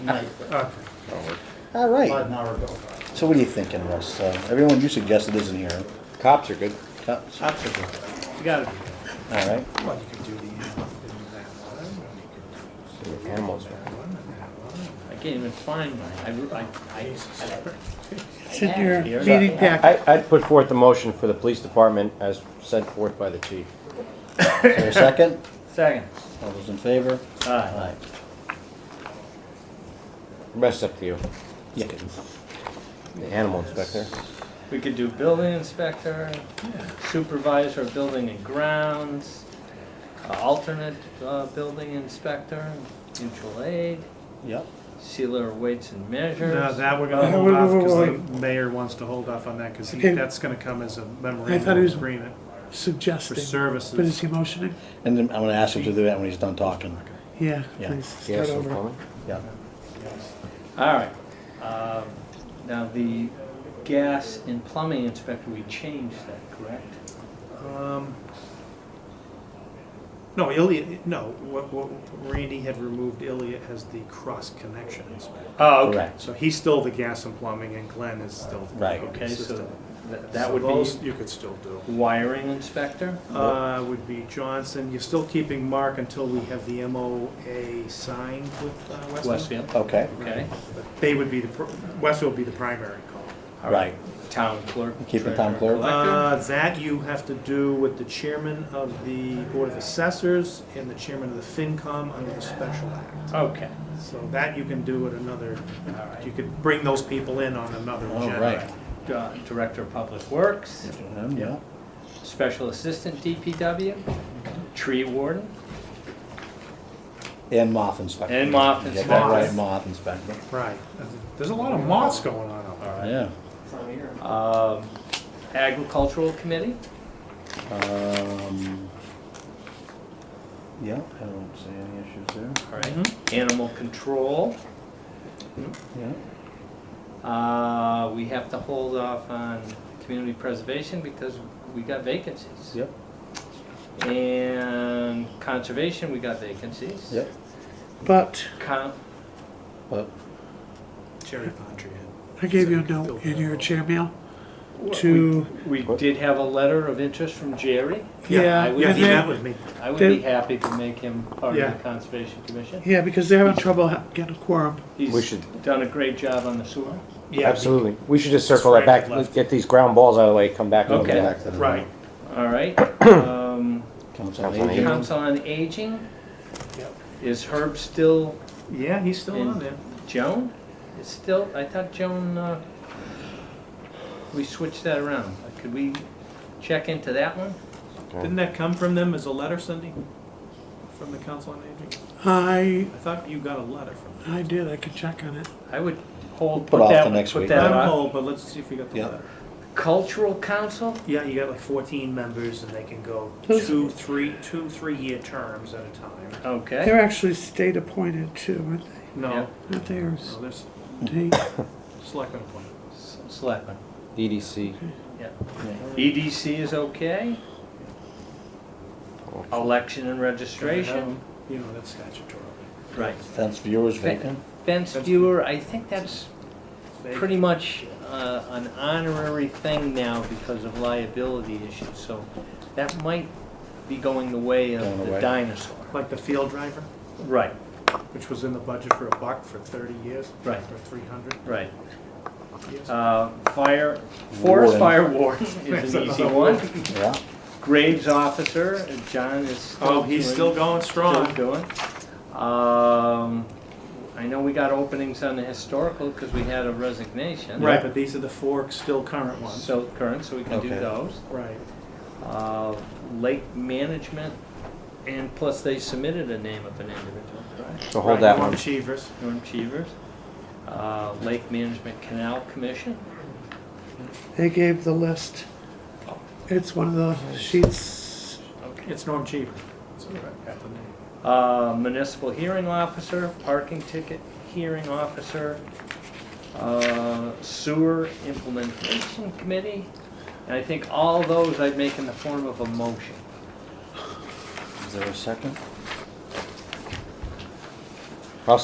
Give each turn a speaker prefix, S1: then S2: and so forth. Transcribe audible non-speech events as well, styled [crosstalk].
S1: night,
S2: Okay.
S3: All
S1: about
S3: right.
S1: an hour ago.
S3: So what are you thinking, Russ? Uh, everyone you suggested isn't here.
S4: Cops are good.
S3: Cops. All
S1: Absolutely. You got it.
S3: right.
S2: Well, you could do the, uh, that one, and you could do
S4: Your camels.
S2: that one, and that one.
S1: I can't even find mine. I, I, I,
S5: It's in your
S1: Here's
S5: meeting packet.
S4: I, I'd put forth the motion for the police department as sent forth by the chief.
S3: Is there a second?
S1: second.
S3: All those in favor?
S1: Aye.
S3: Aye.
S4: Rest up to you,
S3: Yeah.
S4: the animal inspector.
S1: We could do building inspector, supervisor of building and grounds, uh, alternate, uh, building inspector, mutual aid,
S3: Yep.
S1: sealer of weights and measures.
S2: No, that we're
S5: [laughs]
S2: gonna
S5: Uh,
S2: hold
S5: wait,
S2: off,
S5: wait, wait,
S2: because the mayor wants to hold off on that, because
S5: Okay.
S2: that's gonna come as a
S5: thought he
S2: memorandum
S5: was-
S2: agreement for
S5: Suggesting, but is
S2: services.
S5: he motioning?
S3: And then I'm gonna ask him to do that when he's done talking.
S5: Yeah,
S3: Yeah.
S5: please,
S4: You
S5: start
S4: have some
S5: over.
S4: plumbing?
S3: Yeah.
S1: All right. Um, Now, the gas and plumbing inspector, we changed that, correct?
S2: Um, No, Ilya, no, what, what, Randy had removed Ilya as the cross-connection inspector.
S1: Oh,
S3: Correct.
S2: So he's still the gas and plumbing, and Glenn is still. the
S3: Right.
S2: building
S1: Okay, so
S2: system.
S1: that- that
S2: So
S1: would
S2: those
S1: be
S2: You could still do.
S1: wiring inspector?
S2: Uh, would be Johnson, you're still keeping Mark until we have the MOA signed with uh, Westfield?
S1: Westfield,
S3: Okay.
S1: okay.
S2: But They would be the, pr- Westfield would be the primary call.
S1: All right. Town clerk.
S3: Keep the town
S1: treasurer,
S3: clerk.
S1: collector.
S2: Uh, that you have to do with the chairman of the Board of Assessors and the chairman of the FinCom under the Special Act.
S1: Okay,
S2: So that you can do at another,
S1: all right.
S2: you could bring those people in on another
S3: All
S2: agenda.
S3: right.
S1: Uh, Director of Public Works,
S3: Um, Yeah.
S1: Special Assistant DPW, Tree Warden,
S3: And moth inspector.
S1: And moth
S3: You Get that
S2: inspector.
S3: right, moth inspector.
S2: Right. There's a lot of moths going on out there.
S3: Yeah.
S1: um, Agricultural Committee,
S3: Um. Yeah, I don't see any issues there.
S1: all right. Mm-hmm. Animal Control.
S3: Yeah.
S1: Uh, we have to hold off on community preservation because we got vacancies.
S3: Yep.
S1: And conservation, we got vacancies.
S3: Yep.
S5: But
S1: Con-
S3: Well,
S2: Cherry Pond tree.
S5: I gave you a note in your chair mail
S1: we,
S5: to,
S1: we did have a letter of interest from Jerry.
S5: yeah,
S1: I would
S2: Yeah,
S5: and
S2: he met
S5: they're-
S2: with me.
S1: I would
S5: Did-
S1: be happy to make him part
S2: Yeah.
S1: of the conservation commission.
S5: yeah, because they're having trouble ha- getting a quorum.
S1: He's
S4: We should-
S1: done a great job on the sewer.
S2: Yeah,
S4: Absolutely. We should just circle that back,
S2: Frank had left.
S4: Let's get these ground balls out of the way, come back and
S1: Okay.
S4: look at
S3: back to the-
S2: Right.
S1: All
S3: [coughs]
S1: right. um,
S3: Council on
S4: Council on
S3: Aging.
S4: Aging.
S1: Council on Aging.
S2: Yep.
S1: Is Herb still
S2: Yeah, he's still on there.
S1: Joan? Is still? I thought Joan. Uh, we switched that around. Could we check into that one?
S2: Didn't that come from them as a letter, Cindy? From the Council on Aging?
S5: I,
S2: I thought you got a letter from them.
S5: I did, I can check on it.
S1: I would hold
S3: Put off
S1: that,
S3: to next
S1: put
S3: week.
S1: that
S2: I'm
S1: off.
S2: old, but let's see if we got the
S3: Yeah.
S2: letter.
S1: Cultural Council.
S2: Yeah, you got like fourteen members and they can go
S5: Those-
S2: two, three, two, three-year terms at a time.
S1: Okay.
S5: They're actually state appointed too, aren't they?
S1: Yeah.
S2: No,
S5: Aren't they, or
S2: no, there's
S5: state?
S2: selectmen appointed.
S1: S- Selectmen.
S4: EDC.
S1: Yeah. EDC E is okay. Election and registration.
S2: You know, that's statutory.
S1: Right.
S3: Fence viewers vacant.
S1: Fence
S2: That's-
S1: viewer, I think that's
S2: It's vague.
S1: pretty much uh, an honorary thing now because of liability issues, so that might be going the way of
S3: Going
S1: the
S3: away.
S1: dinosaur.
S2: Like the field driver,
S1: Right,
S2: which was in the budget for a buck for thirty years.
S1: Right.
S2: Or three hundred
S1: right.
S2: years.
S1: Uh, Fire, forest
S3: Warden.
S1: fire warden is [laughs] an easy one.
S3: Yeah.
S1: Graves officer, John is still
S2: Oh, he's
S1: doing-
S2: still going
S1: still
S2: strong.
S1: doing. Um, I know we got openings on the historical because we had a resignation.
S2: Right, but these are the four still current ones.
S1: So current, so we can do
S3: Okay.
S1: those.
S2: Right.
S1: uh, lake management, and plus they submitted a name of an individual, correct?
S4: So hold that
S2: Norm
S4: one.
S2: Cheevers.
S1: Norm Cheevers, uh, Lake Management Canal Commission,
S5: They gave the list. It's one of the sheets,
S1: okay.
S2: It's Norm Cheever.
S1: Uh, Municipal Hearing Officer, Parking Ticket Hearing Officer, uh, Sewer Implementation Committee, and I think all those I'd make in the form of a motion.
S3: Is there a second?